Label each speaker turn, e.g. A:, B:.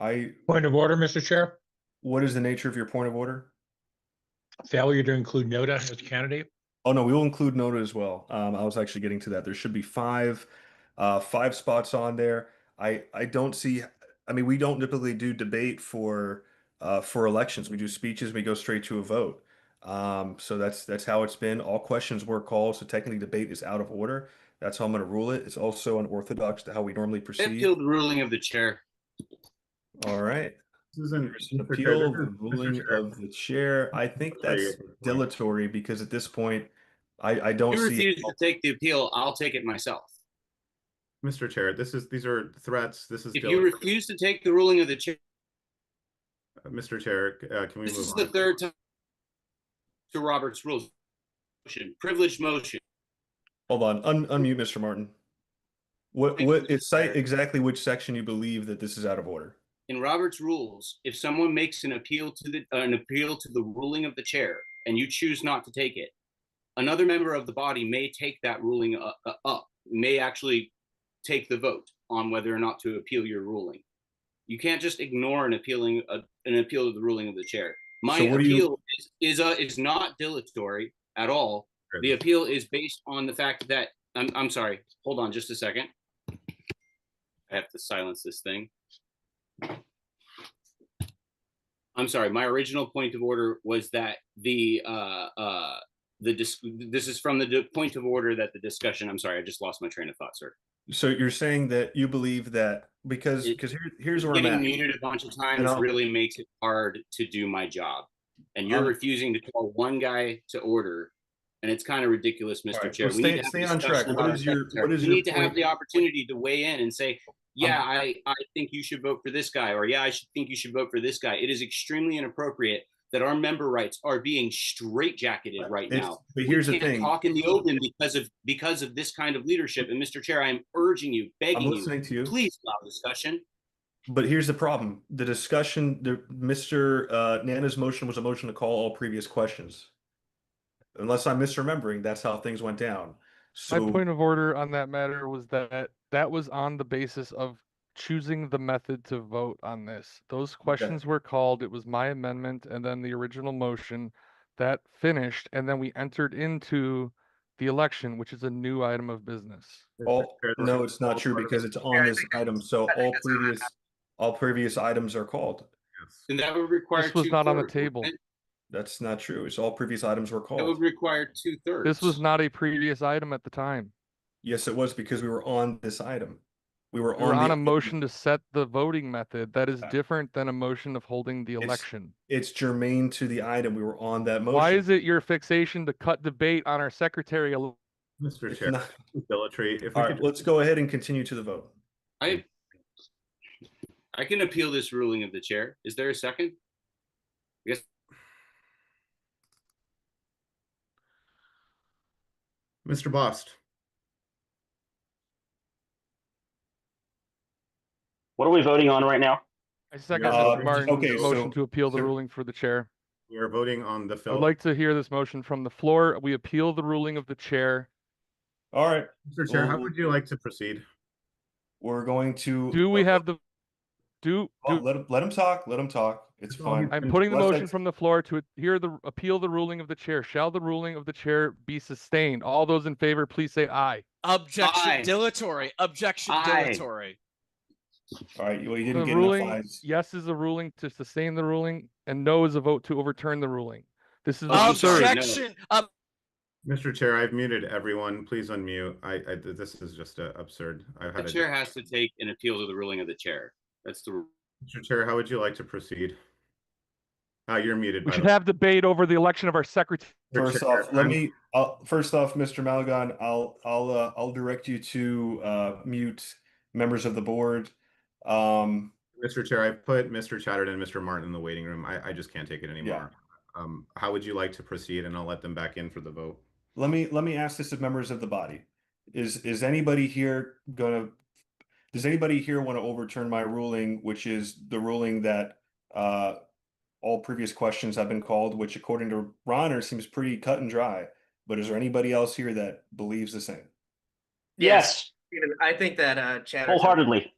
A: I,
B: Point of order, Mr. Chair.
A: what is the nature of your point of order?
B: Failure to include Noda as a candidate.
A: Oh, no, we will include Noda as well. Um, I was actually getting to that. There should be five, uh, five spots on there. I, I don't see, I mean, we don't typically do debate for, uh, for elections. We do speeches, we go straight to a vote. Um, so that's, that's how it's been. All questions were called, so technically debate is out of order. That's how I'm gonna rule it. It's also unorthodox to how we normally proceed.
C: Appeal the ruling of the chair.
A: All right.
D: This isn't.
A: There's an
D: Mr. Chair,
A: appeal,
D: this is-
A: the
D: Mr.
A: ruling
D: Chair,
A: of the chair. I think
D: sorry,
A: that's
D: you're-
A: dilatory because at this point, I, I don't
C: If you
A: see.
C: refuse to take the appeal, I'll take it myself.
D: Mr. Chair, this is, these are threats. This is.
C: If you
D: deliberate.
C: refuse to take the ruling of the chair,
D: Uh, Mr. Chair, c- uh, can we move
C: this
D: on?
C: is the third time to Robert's rules. Motion, privileged motion.
A: Hold on, un- unmute Mr. Martin. What,
C: Thank
A: what,
C: you,
A: it's cite
C: sir.
A: exactly which section you believe that this is out of order.
C: In Robert's rules, if someone makes an appeal to the, uh, an appeal to the ruling of the chair and you choose not to take it, another member of the body may take that ruling uh, uh, up, may actually take the vote on whether or not to appeal your ruling. You can't just ignore an appealing, uh, an appeal to the ruling of the chair. My
A: So what do you-
C: appeal is, is, uh, is not dilatory at all. The appeal is based on the fact that, I'm, I'm sorry, hold on just a second. I have to silence this thing. I'm sorry, my original point of order was that the, uh, uh, the, dis- this is from the di- point of order that the discussion, I'm sorry, I just lost my train of thought, sir.
A: So you're saying that you believe that, because,
C: It-
A: because here, here's where I'm
C: Getting
A: at.
C: muted a bunch of
A: And
C: times
A: I'll-
C: really makes it hard to do my job. And you're
A: Um,
C: refusing to call one guy to order, and it's kind of ridiculous, Mr.
A: Alright,
C: Chair.
A: well,
C: We need
A: stay-
C: to have
A: stay on
C: discussion
A: track. What
C: about our
A: is your-
C: secretary.
A: what is
C: We
A: your
C: need to have
A: point? Um,
C: the opportunity to weigh in and say, yeah, I, I think you should vote for this guy, or yeah, I should think you should vote for this guy. It is extremely inappropriate that our member rights are being straitjacketed right
A: It's-
C: now.
A: But here's the
C: Can't
A: thing,
C: Talk in the open because of, because of this kind of leadership. And Mr. Chair, I am urging you,
A: I'm
C: begging you,
A: listening to you.
C: please allow discussion.
A: But here's the problem. The discussion, the Mr. Uh, Nana's motion was a motion to call all previous questions. Unless I'm misremembering, that's how things went down.
E: My
A: So,
E: point of order on that matter was that that was on the basis of choosing the method to vote on this. Those questions were called, it was my amendment and then the original motion that finished, and then we entered into the election, which is a new item of business.
A: all,
D: Chair, this
A: no,
D: is
A: it's not true
D: deliberate.
A: because it's on this item. So all previous, all previous items are called.
D: Yes.
C: And that would require.
E: This was not on the table.
A: That's not true. It's all previous items were
C: That would
A: called.
C: require two thirds.
E: This was not a previous item at the time.
A: Yes, it was because we were on this item. We were
E: We We're
A: the
E: on a
A: item.
E: motion to set the voting method that is
A: Uh,
E: different than a motion of holding the
A: it's-
E: election.
A: It's germane to the item. We were on that motion.
E: Why is it your fixation to cut debate on our secretary? ele-
D: Mr.
A: It's
D: Chair,
A: not-
D: dilatory, if we
A: All
D: could.
A: right, let's go ahead and continue to the vote.
C: I, I can appeal this ruling of the chair. Is there a second?
D: Mr. Bost,
C: What are we voting on right now?
E: I second
D: Uh,
E: Mr. Martin's
A: okay, so-
E: motion to appeal the
A: so-
E: ruling for the chair.
D: we are voting on the
E: I'd
D: film.
E: like to hear this motion from the floor. We appeal the ruling of the chair.
A: All right,
D: Mr. Chair, how
A: Well-
D: would you like to proceed?
A: we're going to.
E: Do we have the, do,
A: Oh,
E: do,
A: Let him, let him talk. Let him talk. It's
D: That's all he-
A: fine.
E: I'm putting the
A: Let's
E: motion
A: ex-
E: from the floor to hear the, appeal the ruling of the chair. Shall the ruling of the chair be sustained? All those in favor, please say aye.
F: Objection
C: Aye.
F: dilatory. Objection
C: Aye.
F: dilatory.
A: All right, well, you
E: The
A: didn't get enough
E: ruling,
A: eyes.
E: yes is a ruling to sustain the ruling and no is a vote to overturn the ruling. This is.
C: Oh,
E: the
C: sorry, no.
F: Objection. ob-
D: Mr. Chair, I've muted everyone. Please unmute. I, I, th- this is just uh, absurd. I've
C: The
D: had a.
C: chair has to take an appeal to the ruling of the chair. That's the,
D: Mr. Chair, how would you like to proceed? Uh, you're muted.
E: We
D: by
E: should
D: the way,
E: have debate over the election of our secretary.
D: Mr.
A: First
D: Chair.
A: off, let
D: I'm-
A: me, uh, first off, Mr. Malagon, I'll, I'll, uh, I'll direct you to, uh, mute members of the board. Um,
D: Mr. Chair, I've put Mr. Chatterton and Mr. Martin in the waiting room. I, I just can't take it anymore. Um, how would you like to proceed? And I'll let them back in for the vote.
A: Let me let me ask this of members of the body. Is is anybody here gonna, does anybody here want to overturn my ruling, which is the ruling that uh all previous questions have been called, which according to Ronner seems pretty cut and dry. But is there anybody else here that believes the same?
G: Yes. I think that uh Chatterton. Wholeheartedly.